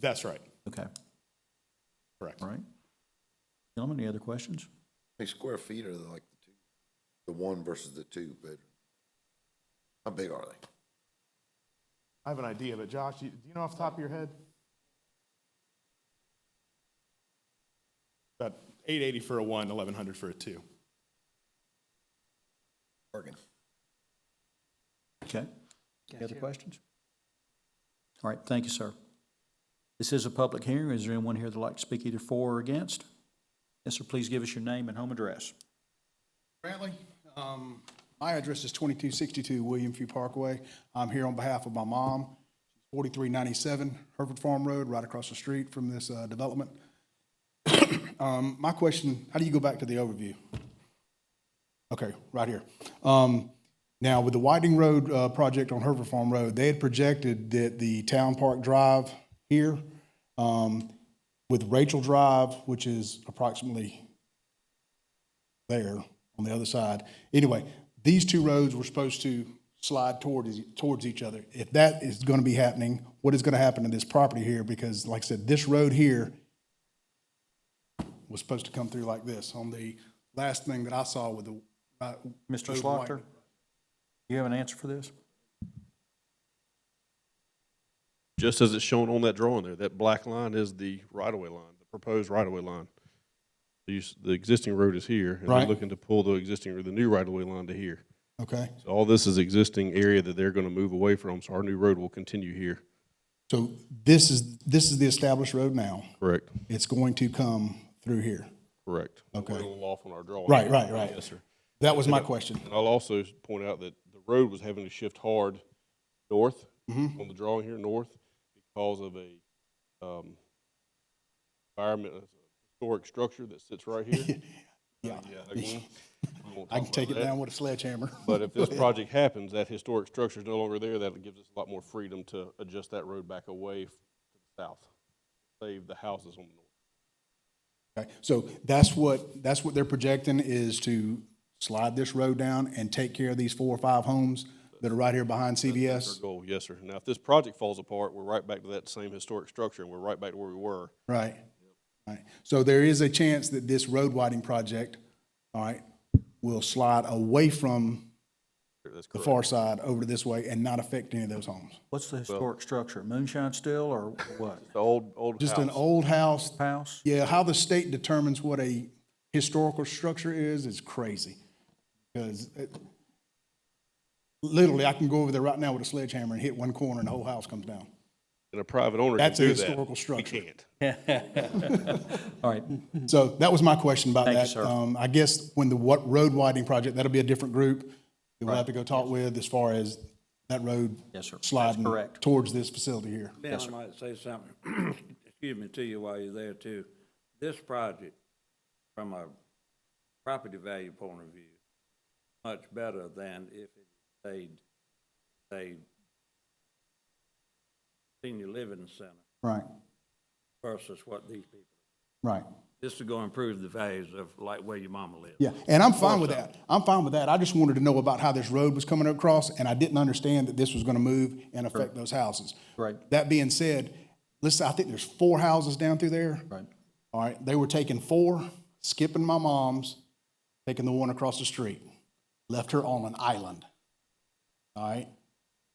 That's right, Okay, correct. all right. Gentlemen, any other questions? How many square feet are they, like the two, the one versus the two bedroom? How big are they? I have an idea, but Josh, you- do you know off the top of your head? About 880 for a one, 1100 for a two. Bergen. Okay. Any other questions? All right, thank you, sir. This is a public hearing. Is there anyone here that'd like to speak either for or against? Yes, sir, please give us your name and home address. Brantley, um, my address is twenty-two sixty-two William Few Parkway. I'm here on behalf of my mom, forty-three ninety-seven Herford Farm Road, right across the street from this, uh, development. Um, my question, how do you go back to the overview? Okay, right here. Um, now, with the Whiting Road, uh, project on Herford Farm Road, they had projected that the Town Park Drive here, um, with Rachel Drive, which is approximately there on the other side. Anyway, these two roads were supposed to slide towards, towards each other. If that is going to be happening, what is going to happen to this property here? Because like I said, this road here was supposed to come through like this on the last thing that I saw with the. uh, Mr. road Slaughter, widening. you have an answer for this? just as it's shown on that drawing there, that black line is the right-of-way line, the proposed right-of-way line. The, use- the existing road is here, and they're Right. looking to pull the existing, or the new right-of-way line to here. Okay, So all this is existing area that they're gonna move away from, so our new road will continue here. so this is, this is the established road now. Correct, It's going to come through here. correct. Okay. We're a little off on our drawing. Right, right, right. Yes, sir. That was my question. And I'll also point out that the road was having to shift hard north Mm-hmm. on the drawing here, north, because of a um, environment, a historic structure that sits right here. Uh, Yeah. again, we won't I talk can take it about that. down with a sledgehammer. But if this project happens, that historic structure is no longer there, that gives us a lot more freedom to adjust that road back away f- to the south, save the houses on the north. Okay, so that's what, that's what they're projecting is to slide this road down and take care of these four or five homes that are right here behind Our CVS? goal, yes, sir. Now, if this project falls apart, we're right back to that same historic structure, and we're right back to where we were. Right. Right. So there is a chance that this road widening project, all right, will slide away from That's the correct. far side over to this way and not affect any of those homes. What's the historic structure? Moonshine still or what? The old, old Just an house. old house. House? Yeah, how the state determines what a historical structure is, is crazy. Because it, literally, I can go over there right now with a sledgehammer and hit one corner and the whole house comes down. And a private owner can That's a do that. historical We structure. can't. All right, So that was my question about Thank you, that. sir. Um, I guess when the what road widening project, that'll be a different group that we'll have to go talk with as far as that road Yes, sir. That's sliding correct. towards this facility here. Ben, I might say something, excuse me, to you while you're there too. This project, from a property value point of view, much better than if it stayed, a senior living center Right, versus what these people. right. This is gonna improve the values of like where your mama lives. Yeah, and I'm fine with that. I'm fine with that. I just wanted to know about how this road was coming across, and I didn't understand that this was gonna move and affect those houses. Right. That being said, listen, I think there's four houses down through there. Right. All right, they were taking four, skipping my mom's, taking the one across the street, left her on an island. All right,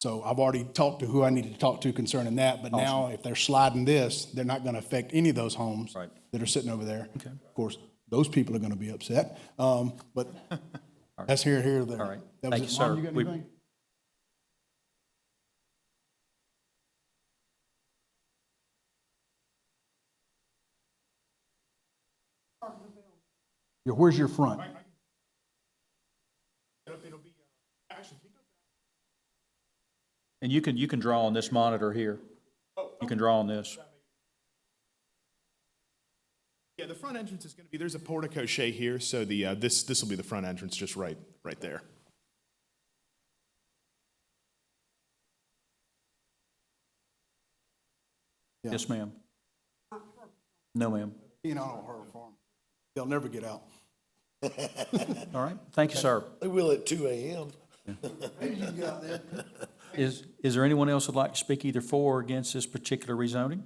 so I've already talked to who I needed to talk to concerning that, but now if they're sliding this, they're not gonna affect any of those homes Right. that are sitting over there. Okay. Of course, those people are gonna be upset, um, but that's here, here, there. all right. That was Thank you, it. Mom, sir. got We- anything? Yeah, Where's your front? uh, And you can, you can draw on this monitor here. You can draw on this. Yeah, the front entrance is going to be, there's a portico shay here, so the, uh, this, this will be the front entrance, just right, right there. Yes, ma'am. No, ma'am. You know, on her farm. They'll never get out. All right, thank you, sir. They will at two AM. Is, is there anyone else that'd like to speak either for or against this particular rezoning?